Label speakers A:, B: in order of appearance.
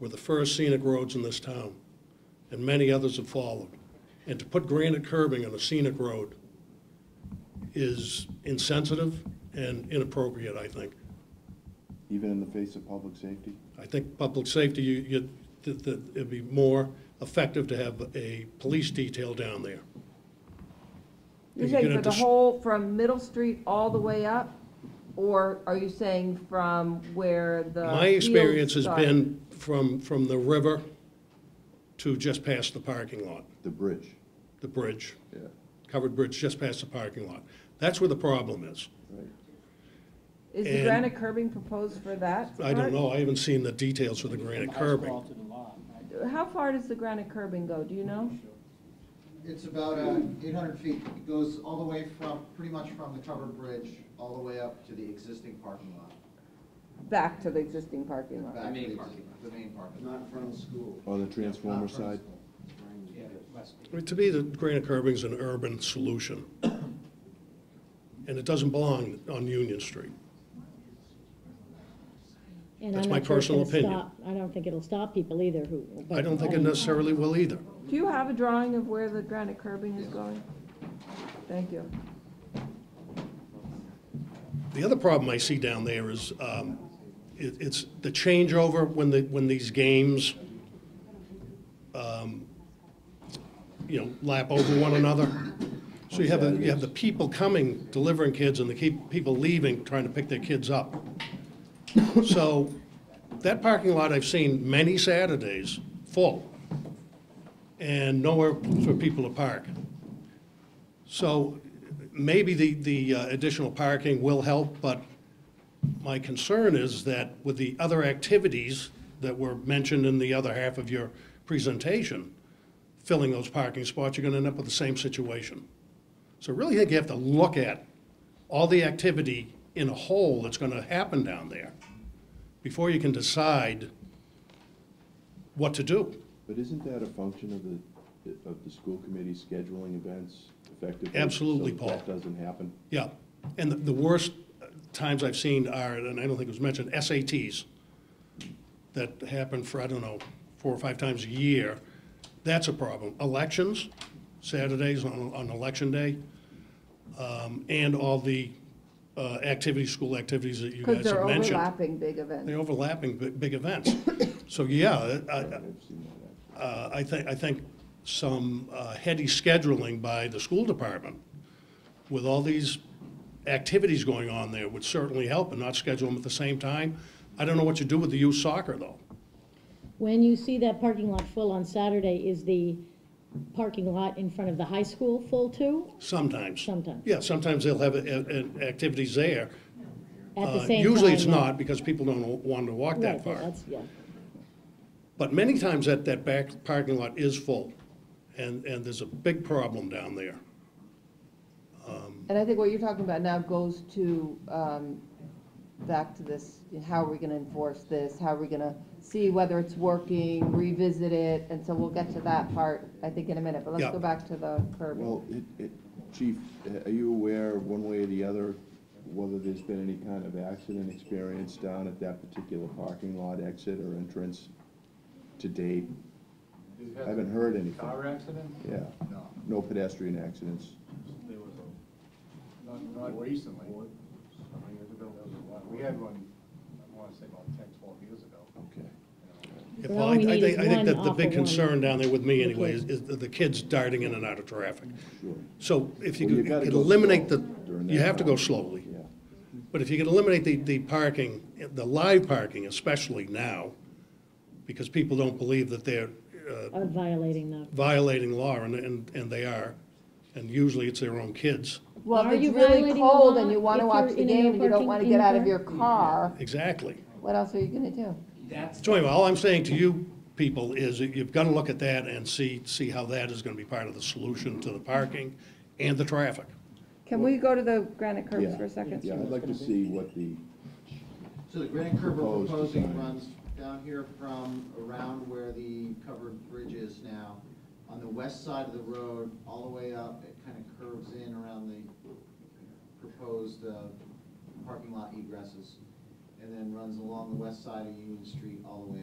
A: were the first scenic roads in this town, and many others have followed. And to put granite curbing on a scenic road is insensitive and inappropriate, I think.
B: even in the face of public safety?
A: I think public safety, you, you, that, that it'd be more effective to have a police detail down there. You're
C: You're saying
A: gonna
C: for the
A: dis-
C: whole, from Middle Street all the way up? Or are you saying from where the?
A: My experience has
C: fields
A: been from, from the river to just past the parking lot,
B: The bridge,
A: the bridge,
B: yeah,
A: covered bridge just past the parking lot. That's where the problem is.
B: right.
C: start? Is the
A: and-
C: granite curbing proposed for that?
A: I don't
C: part?
A: know, I haven't seen the details for the granite curbing.
D: Asphalted a lot, right?
C: How far does the granite curbing go, do you know?
E: It's about uh, 800 feet. It goes all the way from, pretty much from the covered bridge, all the way up to the existing parking lot.
C: Back to the existing parking lot?
E: back to
F: main
E: exi-
F: parking lot.
E: The main parking lot.
G: Not from the school.
B: On Oh, the
G: Not from the
B: transformer side?
G: school.
F: Yeah, West.
A: I mean, To me, the granite curbing's an urban solution. And it doesn't belong on Union Street.
H: And
A: That's
H: I'm
A: my
H: not sure it's
A: personal
H: gonna
A: opinion.
H: stop- I don't think it'll stop people either who.
A: I don't think it
H: Oh.
A: necessarily will either.
C: Do you have a drawing of where the granite curbing is going? Thank you.
A: The other problem I see down there is, um, it, it's the changeover when the, when these games, um, you know, lap over one another. So you have, the- you have the people coming, delivering kids, and the keep, people leaving, trying to pick their kids up. So, that parking lot I've seen many Saturdays full, and nowhere for people to park. So maybe the, the uh, additional parking will help, but my concern is that with the other activities that were mentioned in the other half of your presentation, filling those parking spots, you're gonna end up with the same situation. So I really think you have to look at all the activity in a whole that's gonna happen down there before you can decide what to do.
B: But isn't that a function of the, of the school committee scheduling events effectively?
A: Absolutely,
B: so
A: Paul.
B: That doesn't happen?
A: Yeah, and the- the worst times I've seen are, and I don't think it was mentioned, SATs that happen for, I don't know, four or five times a year. That's a problem. Elections, Saturdays on, on election day, um, and all the uh, activities, school activities that you
C: Because
A: guys
C: they're
A: have mentioned.
C: overlapping big events.
A: They're overlapping big, big events. So, yeah, I, I-
B: I've seen that, actually.
A: uh, I think, I think some uh, heady scheduling by the school department with all these activities going on there would certainly help and not schedule them at the same time. I don't know what you do with the youth soccer, though.
H: When you see that parking lot full on Saturday, is the parking lot in front of the high school full too?
A: Sometimes.
H: Sometimes.
A: Yeah, sometimes they'll have uh, uh, activities there.
H: At the
A: Uh,
H: same time?
A: Usually it's
H: yeah.
A: not because people don't want to walk
H: Right,
A: that far.
H: that's- yeah.
A: But many times that, that back parking lot is full and, and there's a big problem down there.
C: And I think what you're talking about now goes to, um, back to this, how are we gonna enforce this? How are we gonna see whether it's working, revisit it? And so we'll get to that part, I think, in a minute, but let's
A: Yeah.
C: go back to the curbing.
B: Well, it, it, chief, are you aware, one way or the other, whether there's been any kind of accident experience down at that particular parking lot exit or entrance to date? I haven't heard anything.
D: Car accident?
B: Yeah,
D: No.
B: no pedestrian accidents.
D: There was a, not, not recently. Some years ago, there was one. We had one, I wanna say about ten, twelve years ago.
B: Okay.
A: Yeah,
H: But
A: Paul,
H: all
A: I
H: we
A: I
H: need
A: think,
H: is
A: I think
H: one
A: that the
H: awful
A: big
H: one.
A: concern down there with me anyway is,
H: kids.
A: is the the kids darting in and out of traffic.
B: Sure.
A: So if you
B: Well, you
A: could
B: gotta
A: could
B: go
A: eliminate
B: slow
A: the,
B: during
A: you
B: that
A: have to go
B: time.
A: slowly.
B: Yeah.
A: But if you could eliminate the, the parking, the live parking especially now, because people don't believe that they're uh,
H: Uh, Violating the.
A: violating law, and, and, and they are. And usually it's their own kids.
C: Well,
H: Are
C: if it's
H: you
C: really
H: violating the
C: cold
H: law
C: and you wanna
H: if
C: watch
H: you're
C: the
H: in a no
C: game and you don't
H: parking
C: wanna
H: in
C: get
H: the
C: out of
H: park?
C: your car,
A: Exactly.
C: what else are you gonna do?
F: That's,
A: So anyway, all I'm saying to you people is that you've got to look at that and see, see how that is going to be part of the solution to the parking and the traffic.
C: Can we go to the granite curbs
B: Yeah.
C: for a second?
B: Yeah, I'd like to see what the,
E: So the granite curb we're
B: Proposed
E: proposing
B: design.
E: runs down here from around where the covered bridge is now, on the west side of the road, all the way up, it kind of curves in around the proposed uh, parking lot egresses, and then runs along the west side of Union Street all the way